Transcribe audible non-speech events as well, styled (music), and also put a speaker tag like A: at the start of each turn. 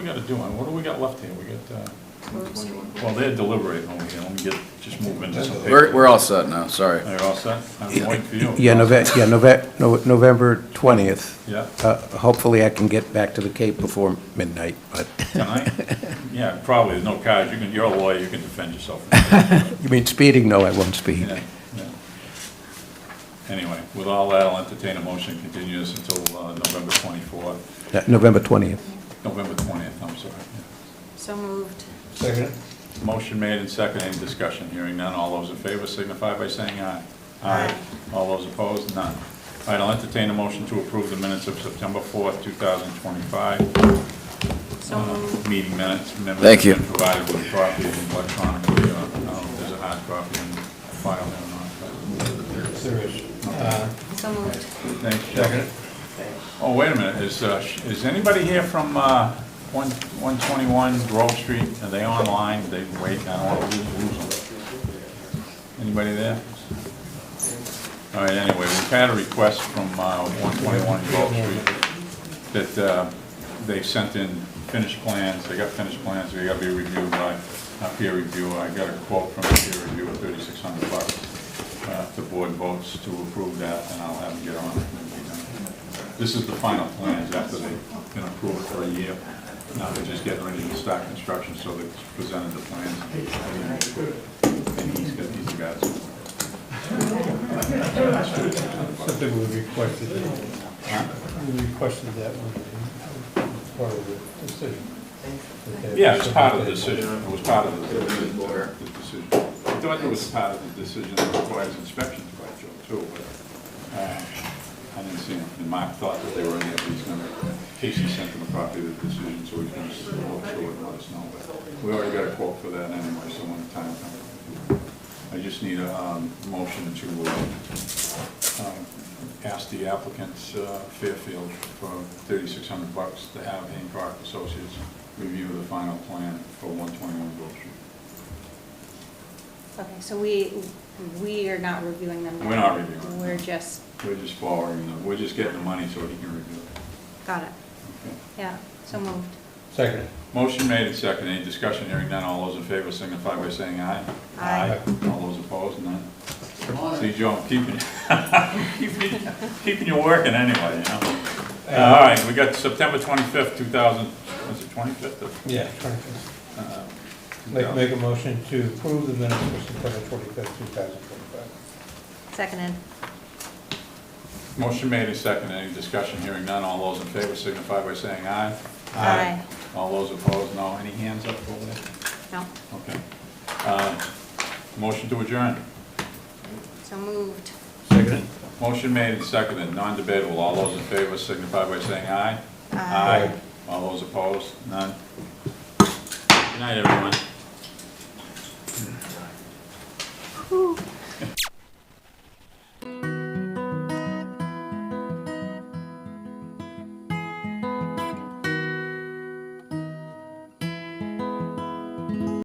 A: We gotta do on, what do we got left here? We got, uh, well,
B: Well,
A: they're deliberating over here, let me get, just move into some
C: We're,
A: paper.
C: we're all set now, sorry.
A: They're all set? I'm waiting for you.
D: Yeah, Nove- yeah, Nove- No- November 20th.
A: Yeah.
D: Uh, Hopefully I can get back to the Cape before midnight, but,
A: Tonight? Yeah, probably, there's no cards, you can, you're a lawyer, you can defend
C: (laughs)
A: yourself.
D: you mean speeding? No, I won't speed.
A: Yeah, yeah. Anyway, with all that, I'll entertain a motion, to continue this until uh, November 24th,
D: No, November 20th.
A: November 20th, I'm sorry. yeah.
B: So moved.
E: Second.
A: Motion made and second, any discussion? Hearing none, all those in favor signify by saying aye.
B: Aye.
A: All those opposed, none. All right, I'll entertain a motion to approve the minutes of September 4th, 2025.
B: So
A: uh,
B: moved.
A: Meeting minutes. minutes
C: Thank you.
A: have been Provided with copy electronically, uh, I don't know if there's a hard copy in the file there or not.
E: There is. Uh,
B: So moved.
A: but- Thanks, Jeff. Oh, wait a minute, is, uh, sh- is anybody here from uh, one 121 Grove Street? Are they online? They wait, I don't want to lose them. Anybody there? All right, anyway, we've had a request from uh, 121 Grove Street that uh, they sent in finished plans, they got finished plans, they got to be reviewed by a peer reviewer. I got a quote from a peer reviewer, 3,600 bucks. Uh, If the board votes to approve that, then I'll have them get on it. and be done. This is the final plans after they've been approved for a year. Now they're just getting ready to start construction, so they presented the plans. And he's got, he's got some.
E: Something we requested, we requested that one, as part of the decision. That
A: Yeah, it's part of the
E: that-
A: decision, it was part of the the decision. I thought it was part of the decision that requires inspections by Joe too, but uh, I didn't see it. And Mark thought that they were in there, but he's gonna, Casey sent him a copy of the decision, so he's gonna s- look through it and let us know. But We already got a quote for that anyway, so when the time comes. I just need a um, motion to uh, um, ask the applicant uh, Fairfield for 3,600 bucks to have Hancock Associates review the final plan for 121 Grove Street.
B: Okay, so we, we are not reviewing them. now.
A: We're not reviewing.
B: We're just,
A: We're just borrowing them, we're just getting the money so he can review it.
B: got it.
A: Okay.
B: Yeah, so moved.
E: Second.
A: Motion made and seconded, any discussion, hearing none, all those in favor signify by saying aye.
B: Aye.
A: All those opposed, none. See, Joe, I'm keeping, (laughs) keeping, keeping you working anyway, you know? Uh, All right, we got September 25th, 2000, was it 25th? of-
E: Yeah, 25th.
A: uh,
E: Make, make a motion to approve the minutes for September twenty-fifth, two thousand twenty-five.
B: Seconded.
A: Motion made and seconded, any discussion, hearing none, all those in favor signify by saying aye.
B: Aye.
A: All those opposed, no, any hands up over there?
B: No,
A: Okay. Uh, Motion to adjourn.
B: so moved.
E: Second.
A: Motion made and seconded, non-debatable. All those in favor signify by saying aye.
B: Aye.
A: All those opposed, none. Good night, everyone.